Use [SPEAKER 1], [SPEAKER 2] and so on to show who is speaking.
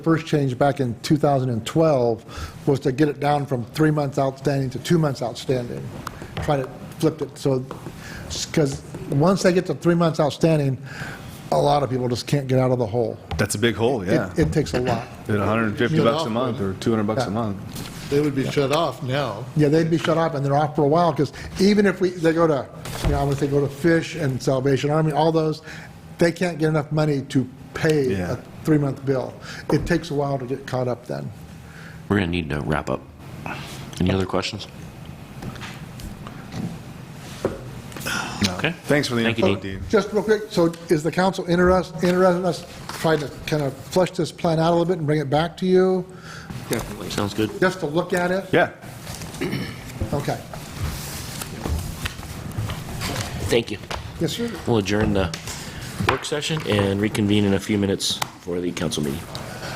[SPEAKER 1] first change back in 2012 was to get it down from three months outstanding to two months outstanding. Trying to flip it, so, because once they get to three months outstanding, a lot of people just can't get out of the hole.
[SPEAKER 2] That's a big hole,
[SPEAKER 1] It-
[SPEAKER 2] yeah.
[SPEAKER 1] It takes a lot.
[SPEAKER 2] At 150
[SPEAKER 3] You're
[SPEAKER 2] bucks a
[SPEAKER 3] awful.
[SPEAKER 2] month or 200 bucks
[SPEAKER 1] Yeah.
[SPEAKER 2] a month.
[SPEAKER 3] They would be shut off now.
[SPEAKER 1] Yeah, they'd be shut off, and they're off for a while, because even if we, they go to, you know, if they go to Fish and Salvation Army, all those, they can't get enough money to pay
[SPEAKER 2] Yeah.
[SPEAKER 1] a three-month bill. It takes a while to get caught up then.
[SPEAKER 4] We're going to need to wrap up. Any other questions? Okay.
[SPEAKER 2] Thanks for the
[SPEAKER 4] Thank you,
[SPEAKER 2] info,
[SPEAKER 4] Dean.
[SPEAKER 2] Dean.
[SPEAKER 1] Just real quick, so is the council interested, interested in us trying to kind of flesh this plan out a little bit and bring it back to you,
[SPEAKER 4] Sounds good.
[SPEAKER 1] just to look at it?
[SPEAKER 2] Yeah.
[SPEAKER 1] Okay.
[SPEAKER 4] Thank you.
[SPEAKER 1] Yes, sir?
[SPEAKER 4] We'll adjourn the work session and reconvene in a few minutes for the council meeting.